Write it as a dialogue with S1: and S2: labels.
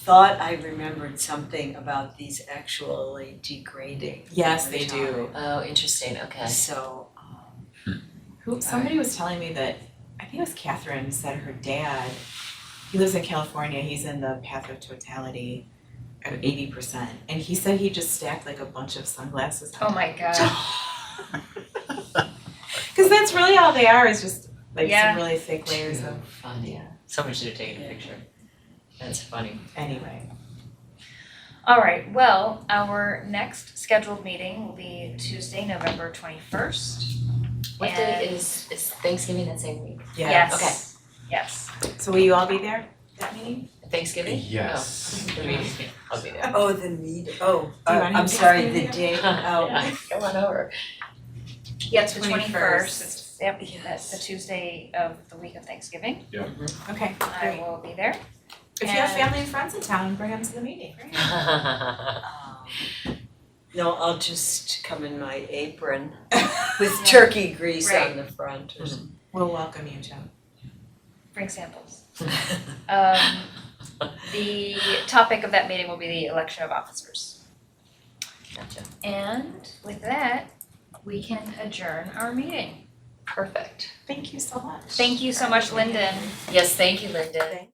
S1: thought I remembered something about these actually degrading.
S2: Yes,
S1: over
S2: they
S1: time.
S2: do.
S3: Oh, interesting, okay.
S1: So, um,
S2: Who, somebody was telling me that, I think it was Catherine, said her dad, he lives in California, he's in the path of totality of eighty percent. And he said he just stacked like a bunch of sunglasses
S4: Oh
S2: on.
S4: my god.
S2: Cause that's really all they are, is just like
S4: Yeah.
S2: some really thick layers
S3: Too
S2: of,
S3: funny.
S2: yeah,
S3: Someone should have taken a picture. That's funny.
S2: anyway.
S4: All right, well, our next scheduled meeting will be Tuesday, November twenty-first.
S3: What day is, is Thanksgiving that same week?
S4: Yes, yes.
S2: So will you all be there, that meeting?
S3: Thanksgiving?
S5: Yes.
S3: Oh, the meeting, yeah, I'll be there.
S1: oh, the meat, oh,
S2: Do you
S1: uh,
S2: want him
S1: I'm
S2: to
S1: sorry,
S2: explain
S1: the day,
S2: it?
S1: oh,
S3: Yeah, come on over.
S4: Yeah, it's the
S2: 21st.
S4: twenty-first, it's, yep, that's the
S1: Yes.
S4: Tuesday of the week of Thanksgiving.
S2: Okay,
S4: I
S2: great.
S4: will be there.
S2: If you have
S4: And-
S2: family and friends in town, bring them to the meeting.
S1: um, no, I'll just come in my apron
S4: Yeah.
S1: with turkey grease
S4: Right.
S1: on the front or something.
S2: We'll welcome you, Joe.
S4: Bring samples. Um, the topic of that meeting will be the election of officers.
S3: Gotcha.
S4: And with that, we can adjourn our meeting.
S3: Perfect.
S2: Thank you so much.
S4: Thank you so much, Lyndon.
S3: Yes, thank you, Linda.